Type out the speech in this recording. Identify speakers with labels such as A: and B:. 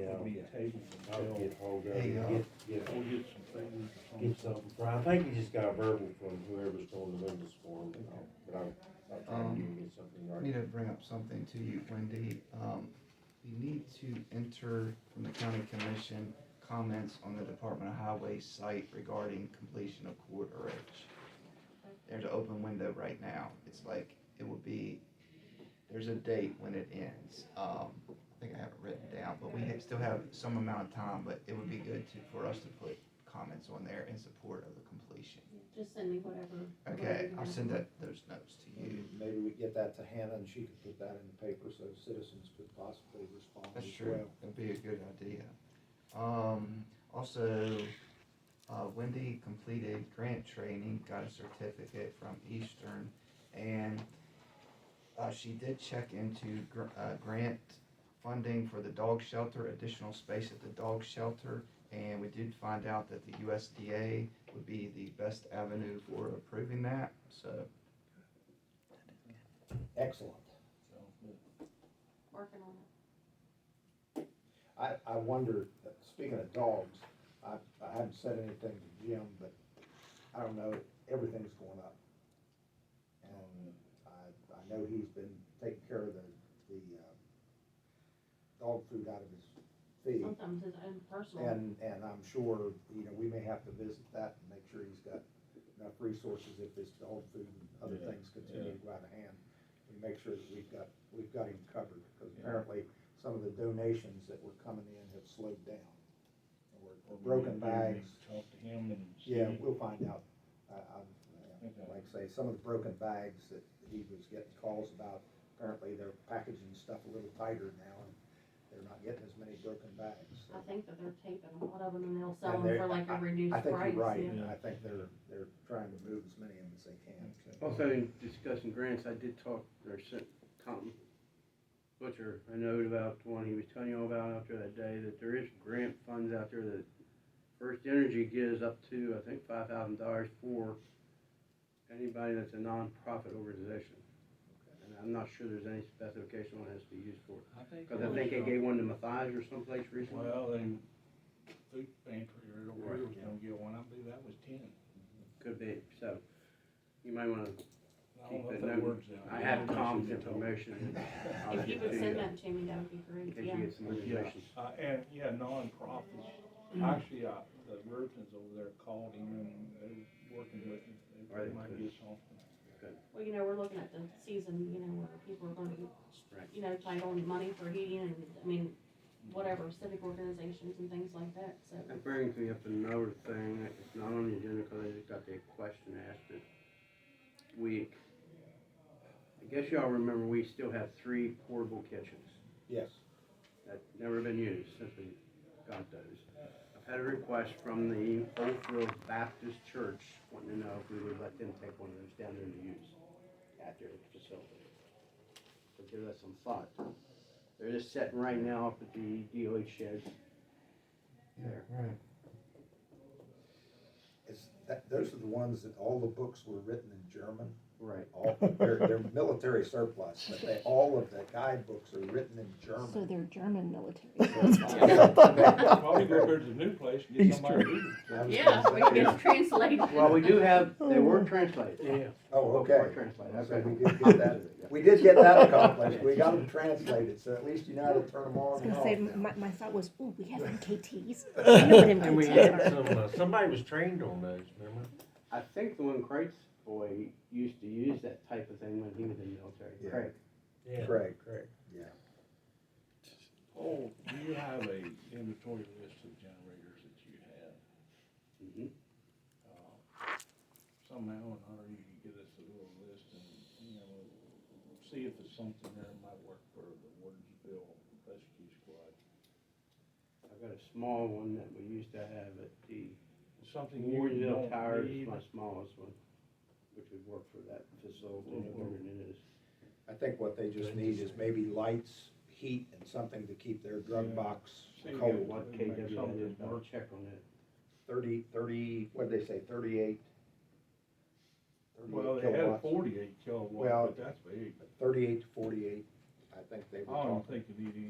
A: table
B: I'll
A: until,
B: get hold of
C: Hey,
B: it,
C: uh,
B: and get, get,
A: we'll get some figures on
B: get
A: something.
B: something, from- I think we just got a verbal from whoever's going to this for them, but I'll, I'll try
C: Um,
B: and get- get something.
C: I
B: right.
C: need to bring up something to you, Wendy. Um, you need to enter from the county commission comments on the Department of Highway site regarding completion of quarter H. There's an open window right now. It's like, it will be, there's a date when it ends. Um, I think I have it written down, but we ha- still have some amount of time, but it would be good to, for us to put comments on there in support of the completion.
D: Just send me whatever. whatever
C: Okay,
D: you
C: I'll
D: have.
C: send that, those notes to you.
E: Maybe we get that to Hannah and she could put that in the paper so citizens could possibly respond
C: That's
E: as
C: true.
E: well.
C: That'd be a good idea. Um, also, uh, Wendy completed grant training, got a certificate from Eastern, and uh, she did check into gr- uh, grant funding for the dog shelter, additional space at the dog shelter, and we did find out that the USDA would be the best avenue for approving that. So,
E: Excellent.
D: Working on it.
E: I, I wonder, speaking of dogs, I, I haven't said anything to Jim, but I don't know, everything's going up. And I, I know he's been taking care of the, the, uh, dog food out of his feed.
D: Sometimes it's um, impersonal.
E: And, and I'm sure, you know, we may have to visit that and make sure he's got enough resources if this dog food and other
A: Yeah,
E: things continue to go out of hand. We make sure that we've got, we've got him covered, because apparently some of the donations that were coming in have slowed down. Or or broken bags,
A: Talk to him and see.
E: yeah, we'll find out. I, I,
A: Okay.
E: like I say, some of the broken bags that he was getting calls about, apparently they're packaging stuff a little tighter now, and they're not getting as many broken bags. so.
D: I think that they're taping a lot of them and they'll
E: And
D: sell them
E: they're-
D: for like a reduced
E: I
D: price.
E: think you're right,
D: yeah.
E: and I think they're, they're trying to move as many of them as they can. so.
F: Also, in discussing grants, I did talk, or sent Tom Butcher a note about the one he was telling you all about out there that day, that there is grant funds out there that First Energy gives up to, I think, five thousand dollars for anybody that's a nonprofit organization. And I'm not sure there's any specification on it to use for it.
A: I think.
F: Cause I think they gave one to Mathias or someplace recently.
A: Well, they, food pantry or whatever was
F: Right.
A: gonna get one, I believe that was ten.
F: Could be, so you might
A: I
F: wanna,
A: don't know
F: Keep
A: if
F: that
A: that
F: note.
A: works out.
F: I have Tom's
A: Yeah.
F: information. I'll
D: If you
F: get
D: would
F: to
D: send that to me, that would be great,
F: In case
D: yeah.
F: you get some
A: Yeah,
F: information.
A: uh, and, yeah, nonprofits, actually, uh, the Virgins over there called him and they're working with him, they
F: Right.
A: might get something.
D: Well, you know, we're looking at the season, you know, where people are gonna be,
F: Right.
D: you know, tight on money for heating and, I mean, whatever, civic organizations and things like that, so.
F: That brings me up to another thing, that it's not on the agenda because I just got the question asked this week. I guess y'all remember, we still have three portable kitchens
E: Yes,
F: that never been used since we got those. I've had a request from the Oakville Baptist Church wanting to know if we would let them take one of those down there to use at their facility. So give that some thought. They're just sitting right now up at the DOH shed. There.
C: right.
E: it's, that, those are the ones that all the books were written in German,
F: Right.
E: all, they're, they're military surplus, but they, all of the guidebooks are written in
G: So
E: German.
G: they're German military.
E: Yeah.
A: Well, we go here to the new place and get somebody to do
E: I was
D: Yeah,
E: gonna
D: we
E: say-
D: can get it translated.
F: Well, we do have, they were translated. Yeah.
E: Oh, okay.
F: Translated,
E: So we
F: okay.
E: did get that, we did get that accomplished, we got them translated, so at least you know how to turn them
G: I was
E: on and
G: gonna say,
E: off now.
G: my, my thought was, ooh, we have MKTs. I know what
B: And we
G: MKTs
B: had
G: are.
B: some, uh, somebody was trained on those, remember?
F: I think the one Craig's boy used to use that type of thing when he was in the military,
E: Yeah.
F: Craig.
B: Yeah,
E: Correct.
B: correct.
A: it. Paul, do you have a inventory list of generators that you have?
F: Mhm.
A: Uh, Somehow or another, you can get us a little list and, you know, see if it's something that might work for the Wardersville Rescue Squad.
F: I've got a small one that we used to have at the
A: Something you
F: Warrenville Tower,
A: don't
F: is
A: need.
F: my smallest one, which would work for that facility, whatever it is.
E: I think what they just need is maybe lights, heat, and something to keep their
A: Yeah.
E: drug box
A: So you
F: Oh,
E: cold.
A: got
F: what
A: Make
F: KW
A: something
F: is, I'll
A: work.
F: check on that.
E: thirty, thirty, what'd they say, thirty-eight?
A: Well, they had forty-eight kilowatt,
E: Well,
A: but that's big.
E: Thirty-eight to forty-eight, I think they
A: I
E: were talking.
A: don't think you need any